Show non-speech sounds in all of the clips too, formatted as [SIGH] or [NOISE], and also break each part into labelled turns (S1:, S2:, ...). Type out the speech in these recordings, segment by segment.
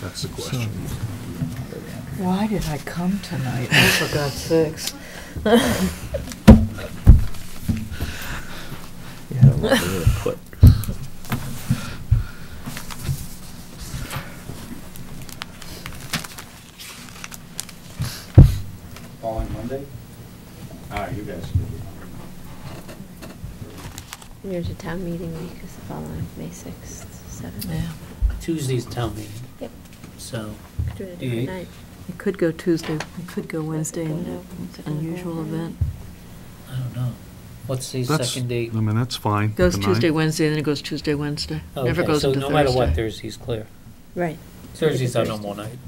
S1: That's the question.
S2: Why did I come tonight? Oh, for God's sakes.
S3: Yeah, I wonder where to put.
S4: Following Monday? Ah, you guys can do
S5: There's a town meeting week is the following, May 6th, 7th.
S2: Yeah.
S6: Tuesday's town meeting,
S5: Yep,
S6: so,
S5: could do it a
S6: Yeah.
S5: different night.
S2: It could go Tuesday, it could go Wednesday,
S5: Well,
S2: and
S5: no,
S2: it's an
S5: it's a
S2: unusual
S5: Wednesday.
S2: event.
S6: I don't know. What's the
S1: That's-
S6: second date?
S1: I mean, that's fine.
S2: Goes
S1: The
S2: Tuesday,
S1: ninth.
S2: Wednesday, then it goes Tuesday, Wednesday. Never
S6: Okay,
S2: goes into
S6: So no matter what,
S2: Thursday.
S6: Thursday's clear.
S5: Right.
S6: Thursday's our normal night.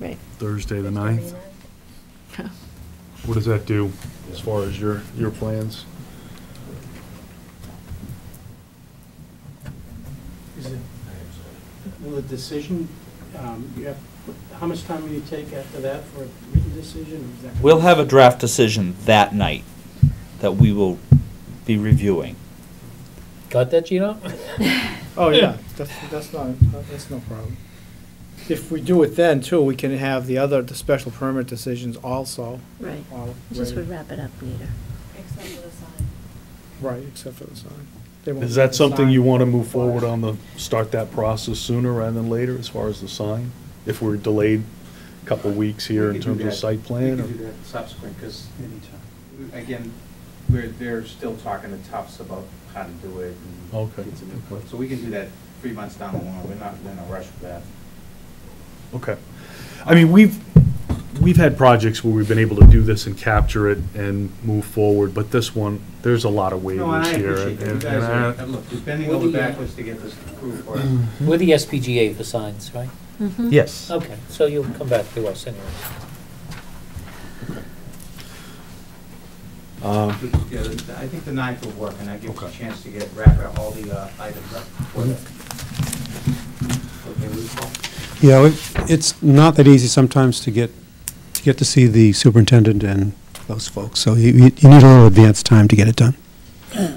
S5: Right.
S1: Thursday, the ninth.
S2: [LAUGHS] Yeah.
S1: What does that do as far as your, your plans?
S7: Is it, will the decision, um, you have, how much time will you take after that for a written decision? Is that-
S3: We'll have a draft decision that night that we will be reviewing.
S6: Got that, Gino?
S4: Mm-hmm.
S8: Oh, yeah, that's, that's not, that's no problem. If we do it then too, we can have the other, the special permit decisions also,
S5: Right,
S8: all
S5: just would
S8: ready.
S5: wrap it up later.
S9: Except for the sign.
S8: Right, except for the sign. They won't
S1: Is
S8: let
S1: that
S8: the
S1: something
S8: sign-
S1: you want to move forward on the, start that process sooner rather than later as far as the sign? If we're delayed a couple weeks here in terms of site plan?
S4: We
S1: or-
S4: can do that subsequent, because anytime, again, we're, they're still talking to Tufts about how to do it and
S1: Okay,
S4: get some
S1: okay.
S4: input. So we can do that three months down the line, we're not in a rush for that.
S1: Okay. I mean, we've, we've had projects where we've been able to do this and capture it and move forward, but this one, there's a lot of
S4: No, and
S1: waivers
S4: I
S1: here.
S4: appreciate that, you
S1: and-
S4: guys
S1: and
S4: are,
S1: I-
S4: look, you're bending
S6: What do
S4: over
S6: you-
S4: backwards to get this approved for us.
S1: Uh-huh.
S6: We're the SPGA for signs, right?
S3: Yes.
S6: Okay, so you'll come back to us anyway.
S1: um,
S4: But, yeah, the- I think the ninth will work, and that gives us
S1: Okay.
S4: a chance to get, wrap up all the uh, items up. before that. Okay, we call?
S10: Yeah, it- it's not that easy sometimes to get, to get to see the superintendent and those folks, so you, you you need a little advance time to get it done.
S1: You
S6: I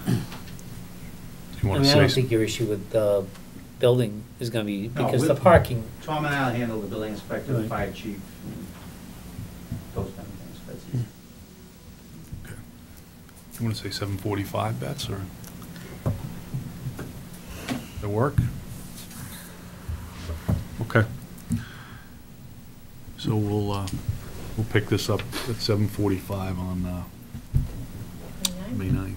S1: want
S6: mean,
S1: to say
S6: I don't
S1: something?
S6: think your issue with the building is gonna be,
S4: No,
S6: because
S4: we-
S6: the parking,
S4: Tom and I'll handle the building inspector, the
S6: Right.
S4: fire chief, and those kind of things, that's easy.
S1: You want to say seven forty-five, Bets, or? That work? Okay. So we'll, uh, we'll pick this up at seven forty-five on, uh, May ninth.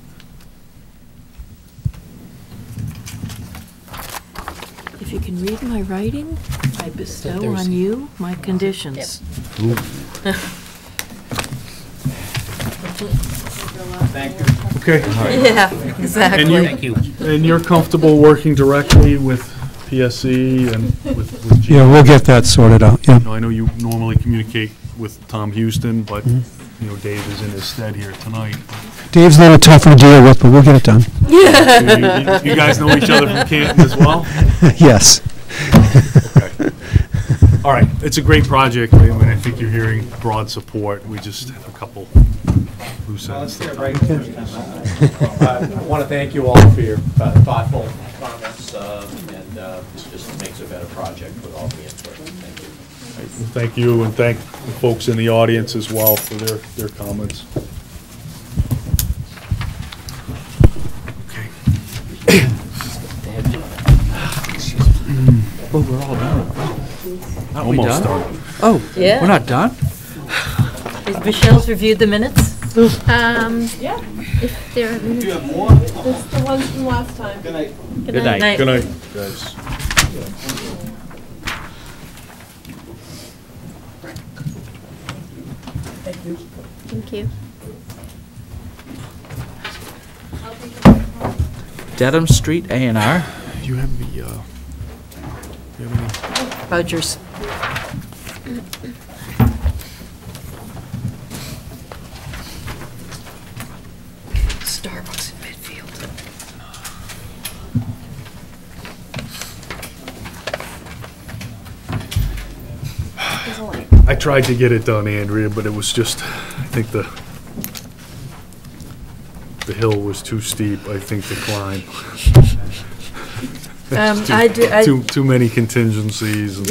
S2: If you can read my writing, I bestow
S6: Thursday.
S2: on you my conditions.
S4: Thank you.
S1: Okay,
S2: Yeah,
S1: And you-
S6: thank you.
S1: and you're comfortable working directly with PSC and with, with G?
S10: Yeah, we'll get that sorted out, yeah.
S1: No, I know you normally communicate with Tom Houston, but, you know, Dave is in his stead here tonight.
S10: Dave's a little tough to deal with, but we'll get it done,
S1: You- You you guys know each other from Canton as well?
S10: [LAUGHS] yes.
S1: All right, it's a great project, I mean, I think you're hearing broad support, we just have a couple loose
S4: Well, let's
S1: ends.
S4: get it right the first time. I want to thank you all for your thoughtful comments, uh, and it just makes a better project with all the input. Thank you.
S1: Thank you, and thank the folks in the audience as well for their, their comments. Okay.
S3: Well, we're all done. Aren't we
S1: Almost
S3: done?
S1: done.
S3: Oh,
S2: Yeah.
S3: we're not done?
S2: Is Michelle's reviewed the minutes?
S5: Um,
S9: Yeah,
S5: if there are minutes.
S9: it's the ones from last time.
S3: Good night.
S1: Good night, guys.
S5: Thank you.
S3: Dedham Street A and R.
S1: Do you have the, uh, do you have any?
S2: Rogers. Starbucks in Midfield.
S1: I tried to get it done, Andrea, but it was just, I think the, the hill was too steep, I think, to climb.
S2: Um,
S1: Too-
S2: I do-
S1: [LAUGHS]
S2: I-
S1: Too, too many contingencies and